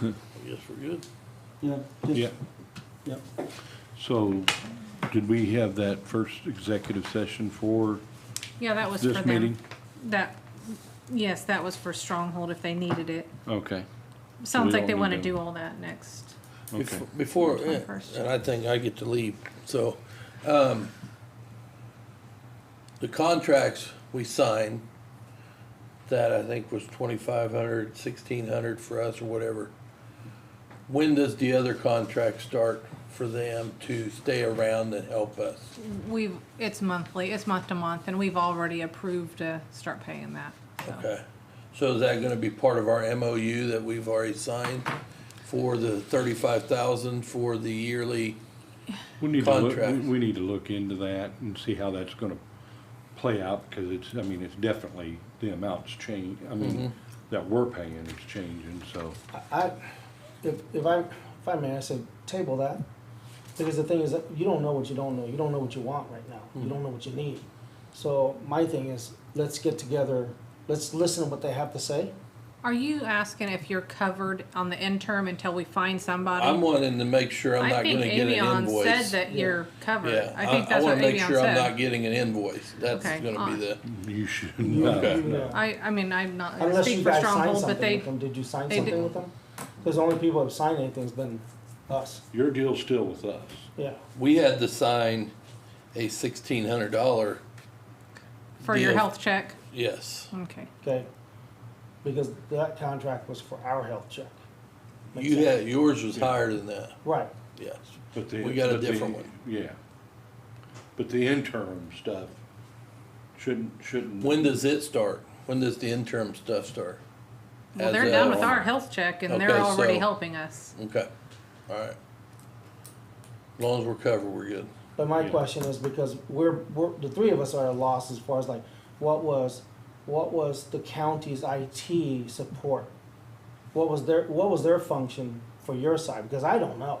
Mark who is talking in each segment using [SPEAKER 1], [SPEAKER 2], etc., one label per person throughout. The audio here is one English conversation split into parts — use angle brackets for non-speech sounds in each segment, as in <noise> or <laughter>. [SPEAKER 1] I guess we're good.
[SPEAKER 2] Yeah, just-
[SPEAKER 3] Yeah,
[SPEAKER 2] yeah.
[SPEAKER 3] so did we have that first executive session for
[SPEAKER 4] Yeah, that was for
[SPEAKER 3] this
[SPEAKER 4] them.
[SPEAKER 3] meeting?
[SPEAKER 4] That, yes, that was for Stronghold if they needed it.
[SPEAKER 3] Okay,
[SPEAKER 4] Sounds like they
[SPEAKER 3] don't
[SPEAKER 4] wanna
[SPEAKER 3] need to-
[SPEAKER 4] do all that next.
[SPEAKER 3] okay.
[SPEAKER 1] Bef- Before,
[SPEAKER 4] On first.
[SPEAKER 1] and I think I get to leave, so, um, the contracts we signed, that I think was twenty-five hundred, sixteen hundred for us or whatever. When does the other contract start for them to stay around and help us?
[SPEAKER 4] We've, it's monthly, it's month to month, and we've already approved to start paying that, so.
[SPEAKER 1] Okay, so is that gonna be part of our MOU that we've already signed for the thirty-five thousand for the yearly?
[SPEAKER 3] We need to look, we-
[SPEAKER 1] Contract.
[SPEAKER 3] we need to look into that and see how that's gonna play out, because it's, I mean, it's definitely, the amount's change, I
[SPEAKER 1] Mm-hmm.
[SPEAKER 3] mean, that we're paying is changing, so.
[SPEAKER 5] I, if, if I, if I may, I said table that, because the thing is, that you don't know what you don't know, you don't know what you want right now,
[SPEAKER 2] Hmm.
[SPEAKER 5] you don't know what you need. So my thing is, let's get together, let's listen to what they have to say.
[SPEAKER 4] Are you asking if you're covered on the interim until we find somebody?
[SPEAKER 1] I'm wanting to make sure I'm
[SPEAKER 4] I
[SPEAKER 1] not
[SPEAKER 4] think
[SPEAKER 1] gonna get an
[SPEAKER 4] Avion
[SPEAKER 1] invoice.
[SPEAKER 4] said that you're covered.
[SPEAKER 1] Yeah, I,
[SPEAKER 4] I think
[SPEAKER 1] I
[SPEAKER 4] that's
[SPEAKER 1] wanna
[SPEAKER 4] what
[SPEAKER 1] make
[SPEAKER 4] Avion
[SPEAKER 1] sure I'm not
[SPEAKER 4] said.
[SPEAKER 1] getting an invoice, that's
[SPEAKER 4] Okay,
[SPEAKER 1] gonna be
[SPEAKER 4] uh,
[SPEAKER 1] the,
[SPEAKER 3] You should,
[SPEAKER 5] You-
[SPEAKER 3] no,
[SPEAKER 1] Okay.
[SPEAKER 3] no.
[SPEAKER 5] yeah.
[SPEAKER 4] I, I mean, I'm not gonna
[SPEAKER 5] Unless you
[SPEAKER 4] speak for
[SPEAKER 5] guys signed
[SPEAKER 4] Stronghold, but
[SPEAKER 5] something
[SPEAKER 4] they,
[SPEAKER 5] with them, did you sign
[SPEAKER 4] they
[SPEAKER 5] something
[SPEAKER 4] did-
[SPEAKER 5] with them? Because the only people who've signed anything's been us,
[SPEAKER 3] your deal's still with us.
[SPEAKER 5] yeah.
[SPEAKER 1] we had to sign a sixteen hundred dollar,
[SPEAKER 4] for your
[SPEAKER 1] deal.
[SPEAKER 4] health check,
[SPEAKER 1] yes.
[SPEAKER 4] okay.
[SPEAKER 5] Okay, because that contract was for our health check. Makes
[SPEAKER 1] You
[SPEAKER 5] sense.
[SPEAKER 1] had, yours was higher than that,
[SPEAKER 5] Right,
[SPEAKER 1] yes.
[SPEAKER 3] But the-
[SPEAKER 1] We got a
[SPEAKER 3] but the-
[SPEAKER 1] different one.
[SPEAKER 3] Yeah. But the interim stuff shouldn't, shouldn't.
[SPEAKER 1] When does it start? When does the interim stuff start?
[SPEAKER 4] Well,
[SPEAKER 1] As
[SPEAKER 4] they're done with
[SPEAKER 1] of-
[SPEAKER 4] our health check and
[SPEAKER 1] Okay,
[SPEAKER 4] they're already
[SPEAKER 1] so-
[SPEAKER 4] helping us.
[SPEAKER 1] Okay, all right. As long as we're covered, we're good.
[SPEAKER 5] but my
[SPEAKER 3] Yeah.
[SPEAKER 5] question is because we're, we're, the three of us are at a loss as far as like, what was, what was the county's IT support? What was their, what was their function for your side? Because I don't know.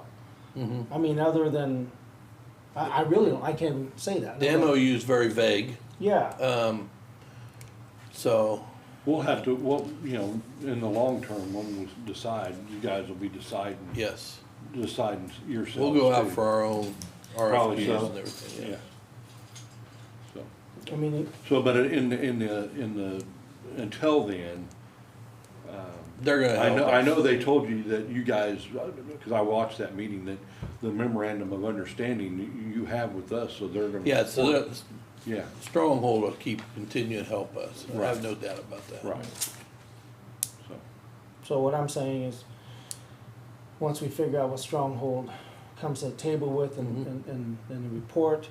[SPEAKER 5] I mean, other than, I, I really don't, I can't say that.
[SPEAKER 1] The MOU is very vague,
[SPEAKER 5] Yeah.
[SPEAKER 1] um, so,
[SPEAKER 3] We'll have to, well, you know, in the long term, when we decide, you guys will be deciding,
[SPEAKER 1] yes.
[SPEAKER 3] deciding yourselves.
[SPEAKER 1] We'll go out
[SPEAKER 3] too.
[SPEAKER 1] for our own RFPs
[SPEAKER 3] Probably so.
[SPEAKER 1] and everything, yeah.
[SPEAKER 3] Yeah. So,
[SPEAKER 5] I mean, it-
[SPEAKER 3] so, but in, in the, in the, until then,
[SPEAKER 1] They're gonna
[SPEAKER 3] I
[SPEAKER 1] help
[SPEAKER 3] know,
[SPEAKER 1] us.
[SPEAKER 3] I know they told you that you guys, because I watched that meeting, that the memorandum of understanding that you have with us, so they're gonna.
[SPEAKER 1] Yeah, so that
[SPEAKER 3] Yeah,
[SPEAKER 1] Stronghold will keep, continue to help us. I have
[SPEAKER 3] Right.
[SPEAKER 1] no doubt about that.
[SPEAKER 3] right. So,
[SPEAKER 5] So what I'm saying is, once we figure out what Stronghold comes to the table with and, and, and, and the report,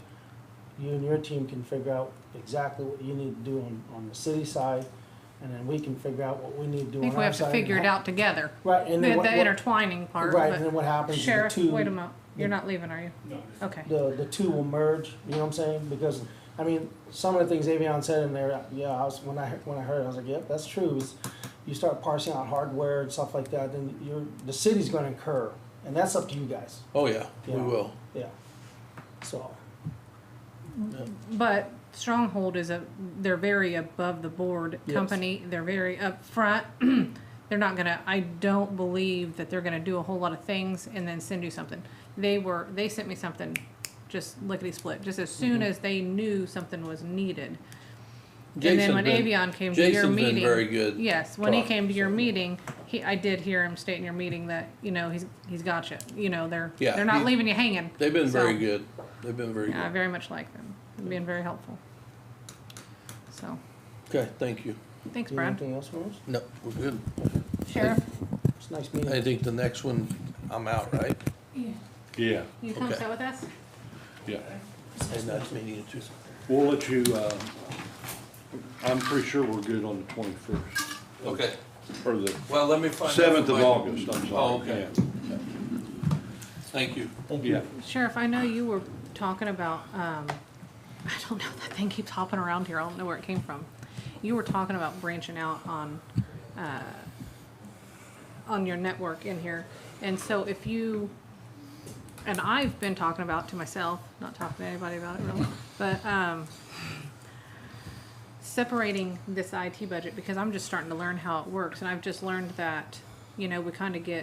[SPEAKER 5] you and your team can figure out exactly what you need to do on, on the city side, and then we can figure out what we need to do
[SPEAKER 4] I
[SPEAKER 5] on our side.
[SPEAKER 4] think we have to
[SPEAKER 5] and
[SPEAKER 4] figure it
[SPEAKER 5] how-
[SPEAKER 4] out together.
[SPEAKER 5] Right,
[SPEAKER 4] The,
[SPEAKER 5] and then what,
[SPEAKER 4] the
[SPEAKER 5] what-
[SPEAKER 4] intertwining part,
[SPEAKER 5] right, and then
[SPEAKER 4] but
[SPEAKER 5] what happens is the
[SPEAKER 4] Sheriff,
[SPEAKER 5] two,
[SPEAKER 4] wait a minute, you're
[SPEAKER 5] the-
[SPEAKER 4] not leaving, are you? No. Okay,
[SPEAKER 5] the, the two will merge, you know what I'm saying? Because, I mean, some of the things Avion said in there, yeah, I was, when I, heard- when I heard it, I was like, yep, that's true. It's- You start parsing out hardware and stuff like that, then you're, the city's gonna incur, and that's up to you guys,
[SPEAKER 1] Oh, yeah, we
[SPEAKER 5] Yeah.
[SPEAKER 1] will.
[SPEAKER 5] yeah. So,
[SPEAKER 4] but Stronghold is a, they're very above the board
[SPEAKER 5] Yes.
[SPEAKER 4] company, they're very upfront. <clears throat> They're not gonna, I don't believe that they're gonna do a whole lot of things and then send you something. They were, they sent me something just lickety-split, just as soon
[SPEAKER 5] Mm-hmm.
[SPEAKER 4] as they knew something was needed. And then
[SPEAKER 1] Jason's
[SPEAKER 4] when
[SPEAKER 1] been-
[SPEAKER 4] Avion came to your
[SPEAKER 1] Jason's been
[SPEAKER 4] meeting.
[SPEAKER 1] very good
[SPEAKER 4] Yes, when he
[SPEAKER 1] talking,
[SPEAKER 4] came to your
[SPEAKER 1] so.
[SPEAKER 4] meeting, he, I did hear him state in your meeting that, you know, he's, he's got you, you know, they're,
[SPEAKER 1] Yeah,
[SPEAKER 4] they're not
[SPEAKER 1] he-
[SPEAKER 4] leaving you hanging.
[SPEAKER 1] They've been very
[SPEAKER 4] So,
[SPEAKER 1] good. They've been very
[SPEAKER 4] Yeah, I
[SPEAKER 1] good.
[SPEAKER 4] very much like them, They've been very helpful. So,
[SPEAKER 1] Okay, thank you.
[SPEAKER 4] thanks
[SPEAKER 5] do you have
[SPEAKER 4] Brad.
[SPEAKER 5] anything else for us?
[SPEAKER 1] No, we're good.
[SPEAKER 4] Sheriff,
[SPEAKER 5] It's a nice meeting.
[SPEAKER 1] I think the next one, I'm out, right?
[SPEAKER 4] you
[SPEAKER 3] yeah,
[SPEAKER 4] you come
[SPEAKER 1] Okay.
[SPEAKER 4] sit with us?
[SPEAKER 3] yeah.
[SPEAKER 1] And that's meeting in two.
[SPEAKER 3] We'll let you, uh, I'm pretty sure we're good on the twenty-first,
[SPEAKER 1] Okay,
[SPEAKER 3] or the
[SPEAKER 1] well, let me find. out
[SPEAKER 3] seventh
[SPEAKER 1] from
[SPEAKER 3] of
[SPEAKER 1] my-
[SPEAKER 3] August, I'm sorry.
[SPEAKER 1] Oh, okay, thank you.
[SPEAKER 5] Thank you.
[SPEAKER 3] Yeah,
[SPEAKER 4] Sheriff, I know you were talking about, um, <laughs> I don't know, that thing keeps hopping around here, I don't know where it came from. You were talking about branching out on, uh, on your network in here, and so if you, and I've been talking about to myself, not talking to anybody about it really, <laughs> but, um, separating this IT budget, because I'm just starting to learn how it works, and I've just learned that, you know, we kinda get